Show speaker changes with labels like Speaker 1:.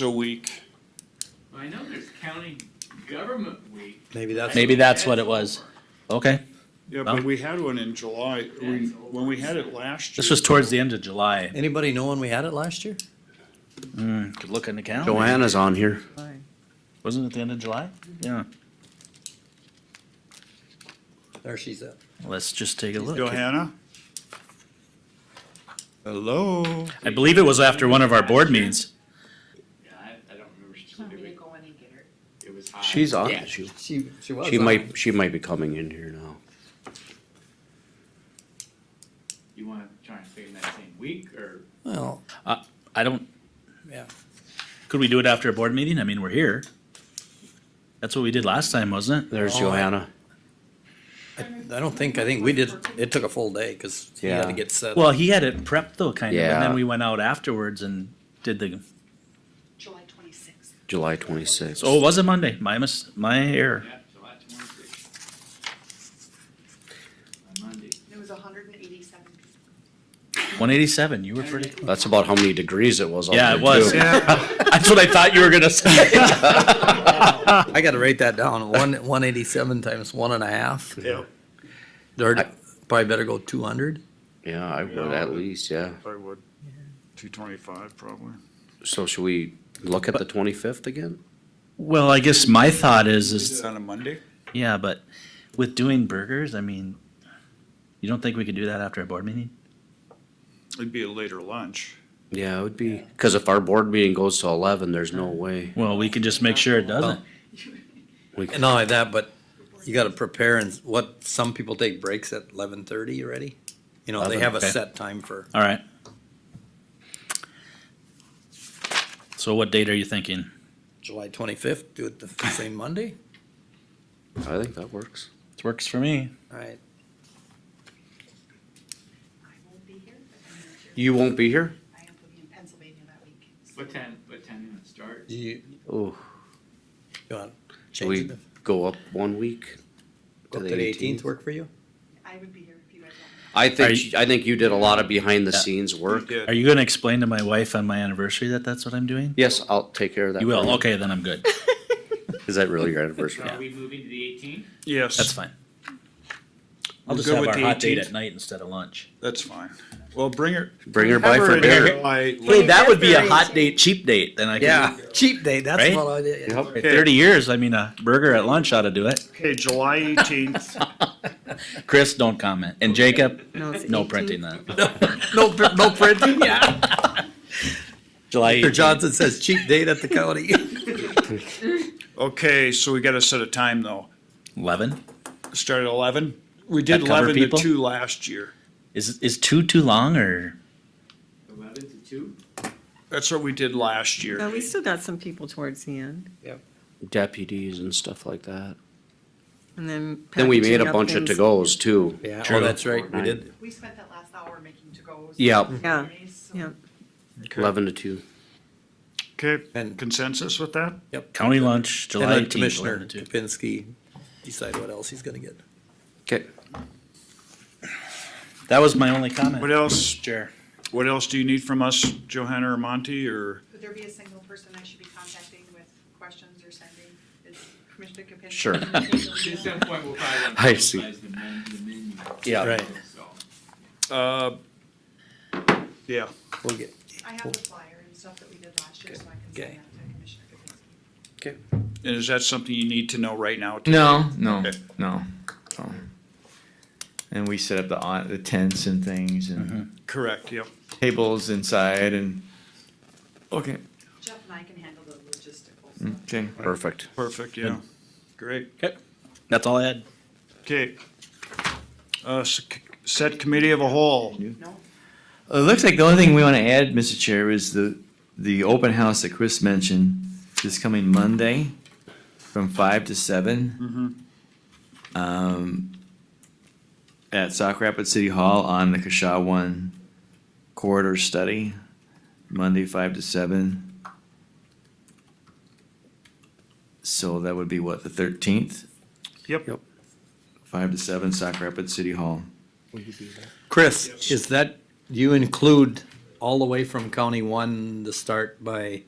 Speaker 1: a week.
Speaker 2: I know there's county government week.
Speaker 3: Maybe that's.
Speaker 4: Maybe that's what it was. Okay,
Speaker 1: Yeah,
Speaker 4: Well-
Speaker 1: but we had one in July, we, when we had it last year.
Speaker 4: this was towards the end of July.
Speaker 3: Anybody know when we had it last year?
Speaker 4: Could look in the calendar.
Speaker 5: Joanna's on here.
Speaker 4: Wasn't it the end of July? Yeah,
Speaker 3: There she's at.
Speaker 4: let's just take a look.
Speaker 1: Johanna? Hello?
Speaker 4: I believe it was after one of our board meetings.
Speaker 2: Yeah, I, I don't remember
Speaker 6: Want me to
Speaker 2: specifically.
Speaker 6: go in and get her?
Speaker 2: It was high.
Speaker 5: She's on.
Speaker 2: Yeah,
Speaker 5: She,
Speaker 3: She, she was.
Speaker 5: she
Speaker 3: on.
Speaker 5: might, she might be coming in here now.
Speaker 2: You wanna try and stay in that same week or?
Speaker 3: Well,
Speaker 4: I don't,
Speaker 3: yeah.
Speaker 4: could we do it after a board meeting? I mean, we're here. That's what we did last time, wasn't it?
Speaker 5: There's
Speaker 3: Oh.
Speaker 5: Johanna.
Speaker 3: I, I don't think, I think we did, it took a full day because he had to
Speaker 5: Yeah.
Speaker 3: get set.
Speaker 4: Well, he had it prepped though, kind of, and
Speaker 5: Yeah.
Speaker 4: then we went out afterwards and did the,
Speaker 6: July twenty-sixth.
Speaker 5: July twenty-sixth.
Speaker 4: so it was a Monday, my mis, my error.
Speaker 2: Yeah, July twenty-sixth. On Monday.
Speaker 6: It was hundred and eighty-seven people.
Speaker 4: One eighty-seven, you were pretty,
Speaker 5: That's about how many degrees it was. out
Speaker 4: yeah,
Speaker 5: there,
Speaker 4: it was.
Speaker 5: Oh, too.
Speaker 4: That's what I thought you were gonna say.
Speaker 3: I gotta write that down. One, one eighty-seven times one and a half.
Speaker 1: Yeah.
Speaker 3: Or probably better go two hundred.
Speaker 5: Yeah, I would at least, yeah.
Speaker 1: I would, two twenty-five probably.
Speaker 5: So should we look at the twenty-fifth again?
Speaker 4: Well, I guess my thought is,
Speaker 1: Is
Speaker 4: is,
Speaker 1: it on a Monday?
Speaker 4: yeah, but with doing burgers, I mean, you don't think we could do that after a board meeting?
Speaker 1: It'd be a later lunch.
Speaker 5: Yeah, it would be, cause if our board meeting goes to eleven, there's no way.
Speaker 4: Well, we can just make sure it doesn't.
Speaker 5: We,
Speaker 3: And not only that, but you gotta prepare and what, some people take breaks at eleven thirty already. You know, they have a
Speaker 4: Okay.
Speaker 3: set time for,
Speaker 4: All right. So what date are you thinking?
Speaker 3: July twenty-fifth, do it the same Monday,
Speaker 5: I think that works.
Speaker 4: It works for me.
Speaker 3: alright.
Speaker 6: I won't be here, but I'm not sure.
Speaker 5: You won't be here?
Speaker 6: I am going to be in Pennsylvania that week. so-
Speaker 2: What time, what time you wanna start?
Speaker 3: Do you,
Speaker 5: Oh,
Speaker 3: you want to
Speaker 5: we
Speaker 3: change it?
Speaker 5: go up one week
Speaker 3: Go up to the eighteenth work for you?
Speaker 6: I would be here if you guys want. me.
Speaker 5: I
Speaker 4: Are
Speaker 5: think,
Speaker 4: you-
Speaker 5: I think you did a lot of behind the
Speaker 4: Yeah.
Speaker 5: scenes work.
Speaker 1: Yeah.
Speaker 4: Are you gonna explain to my wife on my anniversary that that's what I'm doing?
Speaker 5: Yes, I'll take care of that.
Speaker 4: You will,
Speaker 5: for
Speaker 4: okay, then I'm good.
Speaker 5: Is that really your
Speaker 2: So
Speaker 5: anniversary?
Speaker 2: Are we moving to the eighteenth?
Speaker 1: Yes.
Speaker 4: That's fine. I'll
Speaker 1: We're
Speaker 4: just
Speaker 1: good
Speaker 4: have
Speaker 1: with
Speaker 4: our
Speaker 1: the
Speaker 4: hot date
Speaker 1: 18th?
Speaker 4: at night instead of lunch.
Speaker 1: That's fine. Well, bring her.
Speaker 5: Bring her
Speaker 1: have
Speaker 5: by for
Speaker 1: in
Speaker 5: dinner.
Speaker 1: July.
Speaker 4: Hey, that would be a hot
Speaker 6: 18th.
Speaker 4: date, cheap date, then I could.
Speaker 3: Cheap day, that's
Speaker 4: Right?
Speaker 3: what I did.
Speaker 5: Yep.
Speaker 4: At Thirty years, I mean, a burger at lunch ought to do it.
Speaker 1: Okay, July eighteenth.
Speaker 4: Chris, don't comment. And Jacob,
Speaker 6: No, it's
Speaker 4: no
Speaker 6: 18th.
Speaker 4: printing that.
Speaker 3: No, pr- no printing, yeah.
Speaker 4: July
Speaker 3: Mr.
Speaker 4: 18th.
Speaker 3: Johnson says cheap date at the county.
Speaker 1: Okay, so we gotta set a time though.
Speaker 4: Eleven?
Speaker 1: Start at eleven? We did
Speaker 4: That cover
Speaker 1: eleven to
Speaker 4: people?
Speaker 1: two last year.
Speaker 4: Is is two too long or
Speaker 2: Eleven to two?
Speaker 1: That's what we did last year.
Speaker 7: No, we still got some people towards the end,
Speaker 5: deputies and stuff like that.
Speaker 7: and then.
Speaker 5: Then we made
Speaker 7: packaging
Speaker 5: a
Speaker 7: up
Speaker 5: bunch of
Speaker 7: things.
Speaker 5: to-go's too.
Speaker 3: Yeah, oh,
Speaker 4: True.
Speaker 3: that's right, we did.
Speaker 6: We spent that last hour making to-go's.
Speaker 5: Yeah,
Speaker 7: Yeah,
Speaker 6: So-
Speaker 7: yeah.
Speaker 5: eleven to two.
Speaker 1: Okay,
Speaker 3: And-
Speaker 1: consensus with that?
Speaker 4: county lunch
Speaker 3: And
Speaker 4: July
Speaker 3: then
Speaker 4: 18th,
Speaker 3: Commissioner
Speaker 4: 11 to two.
Speaker 3: Kapinski decide what else he's gonna get.
Speaker 5: Okay,
Speaker 4: That was my only
Speaker 1: What
Speaker 4: comment.
Speaker 1: else,
Speaker 4: Chair.
Speaker 1: what else do you need from us, Johanna or Monty, or?
Speaker 6: Would there be a single person I should be contacting with questions or sending? Is Commissioner Kapinski?
Speaker 5: Sure.
Speaker 2: At
Speaker 6: Sure.
Speaker 2: some point, we'll probably wanna
Speaker 5: I see.
Speaker 2: finalize the men- the menu.
Speaker 5: Yeah.
Speaker 3: Right.
Speaker 2: So.
Speaker 1: Uh, yeah,
Speaker 3: We'll get,
Speaker 6: I have the flyer and stuff that we did last year, so I can
Speaker 3: Okay.
Speaker 6: send that to Commissioner Kapinski.
Speaker 1: and is that something you need to know right now?
Speaker 8: No, no,
Speaker 1: Okay.
Speaker 8: no. So. And we set up the au- the tents and things and
Speaker 1: Mm-hmm. Correct, yeah.
Speaker 8: tables inside and okay,
Speaker 6: Jeff and I can handle the logistical stuff.
Speaker 8: okay.
Speaker 5: perfect.
Speaker 1: Perfect, yeah. Great.
Speaker 4: That's all I had.
Speaker 1: Okay. Uh, s- set committee of a whole.
Speaker 8: It looks like the only thing we want to add, Mr. Chair, is the the open house that Chris mentioned this coming Monday from five to 7 Um, at Sauk Rapids City Hall on the Kasha One corridor study, Monday five to seven. So that would be what the thirteenth,
Speaker 1: Yep.
Speaker 5: Yep.
Speaker 8: five to seven, Sauk Rapids City Hall.
Speaker 3: Chris, is that, you include all the way from County One, the start by